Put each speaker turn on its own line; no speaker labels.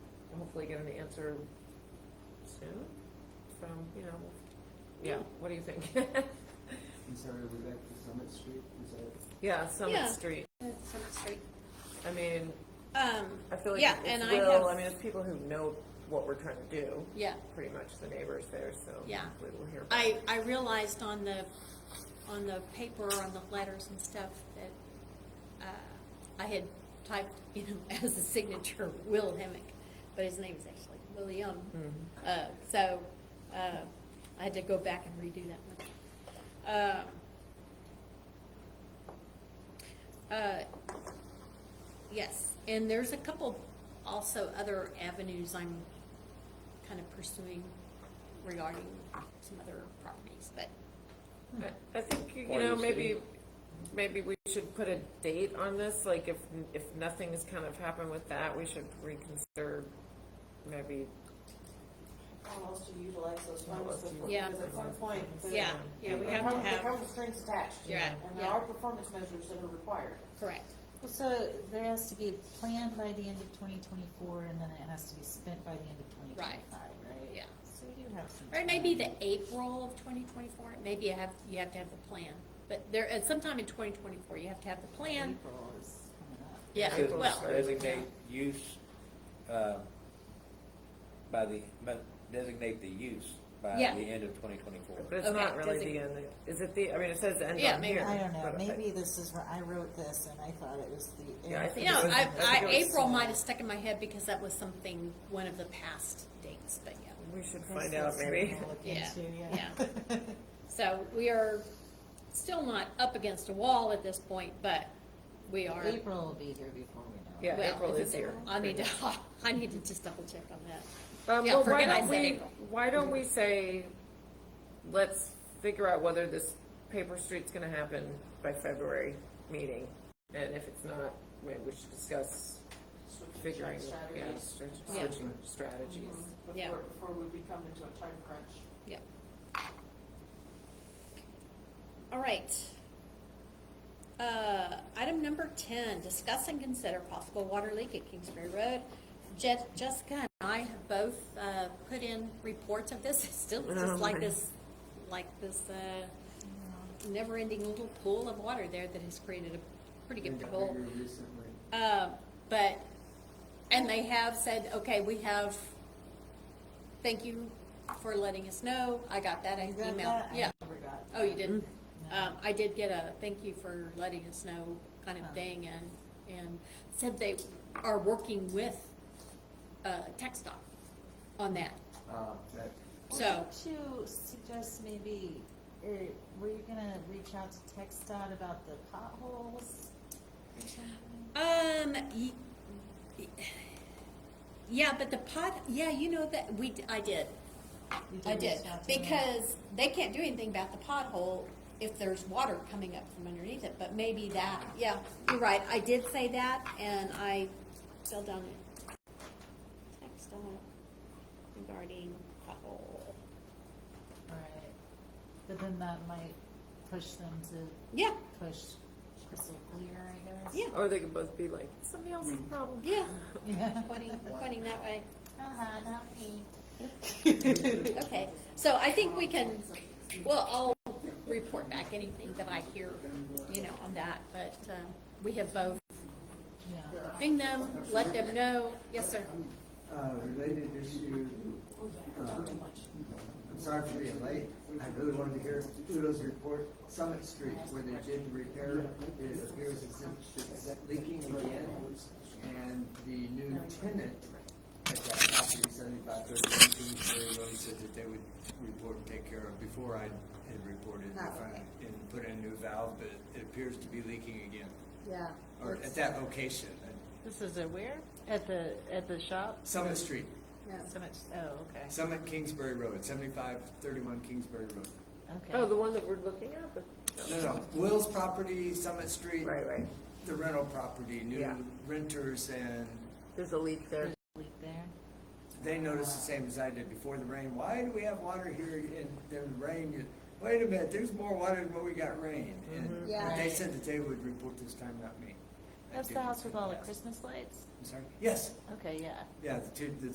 hopefully get an answer soon from, you know, yeah, what do you think?
I'm sorry, are we back to Summit Street? Is that,
Yeah, Summit
Yeah.
Street.
That's Summit Street.
I mean,
Um,
I feel like
Yeah,
it's
and I
Will,
have-
I mean, it's people who know what we're trying to do,
yeah,
pretty much the neighbors there, so
Yeah.
hopefully we'll hear back.
I, I realized on the, on the paper, on the letters and stuff that, uh, I had typed, you know, as a signature, Will Hemick, but his name is actually William.
Mm-hmm.
Uh, so, uh, I had to go back and redo that one. Uh, uh, Yes, and there's a couple also other avenues I'm kind of pursuing regarding some other properties, but
I- I think, you
Or
know,
the
maybe,
city.
maybe we should put a date on this, like if, if nothing's kind of happened with that, we should reconsider maybe,
almost to utilize those
Almost
funds before,
Yeah.
because at some point. the-
yeah, yeah, we
the
have to
perm- The
have,
perm strings attached.
Yeah.
And
Yeah.
there are performance measures that are required.
correct,
Well, So there has to be a plan by the end of twenty twenty-four, and then it has to be spent by the end of twenty twenty-five, right?
yeah.
So you have some.
Or it may be
time.
the April of twenty twenty-four, maybe you have, you have to have the plan, but there, at sometime in twenty twenty-four, you have to have the plan,
April is coming up.
yeah,
April's
To
well,
right.
Designate use, uh, by the, but designate the use by the
Yeah.
end of twenty twenty-four.
but it's
Okay,
not really the
designate.
end, is it the, I mean, it says the end
Yeah,
on
maybe.
here.
I don't know,
but
maybe this is where I wrote this, and I thought it was the.
Yeah, I think
you know,
it was-
I,
I
I,
think it was-
April might have stuck in my head because that was something, one of the past dates, but yeah.
We should
That's
find out
something
maybe.
I'll look
Yeah,
into,
So we are still not up against a wall at this point, but we are.
April will be here before we know. it.
Yeah,
well,
April
if
is
it's
here.
April, I need to, I need to just double check on that.
Um,
Yeah,
well, why
forget I
don't
said
we,
April.
why don't we say, let's figure out whether this paper street's gonna happen by February meeting? And if it's not, maybe we should discuss
Switching
figuring, yeah,
strategies
str-
Yeah.
switching strategies.
Yeah.
Before, before we become into a time crunch.
Yeah. All right. Uh, item number ten, discuss and consider possible water leak at Kingsbury Road. Je- Jessica and I have both, uh, put in reports of this, It's still
Oh,
just like
my.
this, like this, uh, never-ending little pool of water there that has created a pretty good
They got
pool.
bigger recently.
Uh, but, and they have said, okay, we have, thank you for letting us know. I got that
You got
email.
that? I
Yeah.
never got
Oh, you didn't?
No.
Um, I did get a thank you for letting us know kind of
Oh.
thing and, and said they are working with, uh, Tech Stop on that.
Uh, that,
So,
Wouldn't you suggest maybe, or were you gonna reach out to TechStot about the potholes or something?
um, y- yeah, but the pot, yeah, you know that, we, d- I did.
You
I did,
reach out to them?
because they can't do anything about the pothole if there's water coming up from underneath it, but maybe that, yeah, you're right, I did say that, and I fell down it. Text on it regarding pothole.
Right, but then that might push them to
Yeah,
push crystal clear, I guess?
yeah,
Or they could both be like, somebody else's problem.
yeah,
Yeah.
pointing, pointing that way,
Uh-huh, not me.
okay, so I think we can, well, I'll report back anything that I hear, you know, on that, but, um, we have both
Yeah.
ping them, let them know, yes, sir.
Uh, related issue, uh, I'm sorry for being late. I really wanted to hear Udo's report, Summit Street, where they did the repair. It appears as if it's leaking again, and the new tenant at that property, seventy-five thirty-one Kingsbury Road, said that they would report and take care of before I had reported if I- and put in a new valve, but it appears to be leaking again,
Yeah.
or at that location, at
This is at where? At the, at the shop?
Summit Street.
So much, oh, okay.
Summit Kingsbury Road, seventy-five thirty-one Kingsbury Road.
Oh,
Okay.
the one that we're looking at, but,
No, no, Will's property, Summit Street,
right, right,
the rental property,
Yeah.
new renters, and
there's a leak there.
Leak there.
they noticed the same as I did before the rain. Why do we have water here and there's rain? You- Wait a minute, there's more water than what we got rain.
Mm-hmm.
And but they
Yeah.
said that they would report this time, not me. I
That's the
didn't
house
say
with all the
that.
Christmas lights?
I'm sorry? Yes,
Okay, yeah.
yeah, the two, the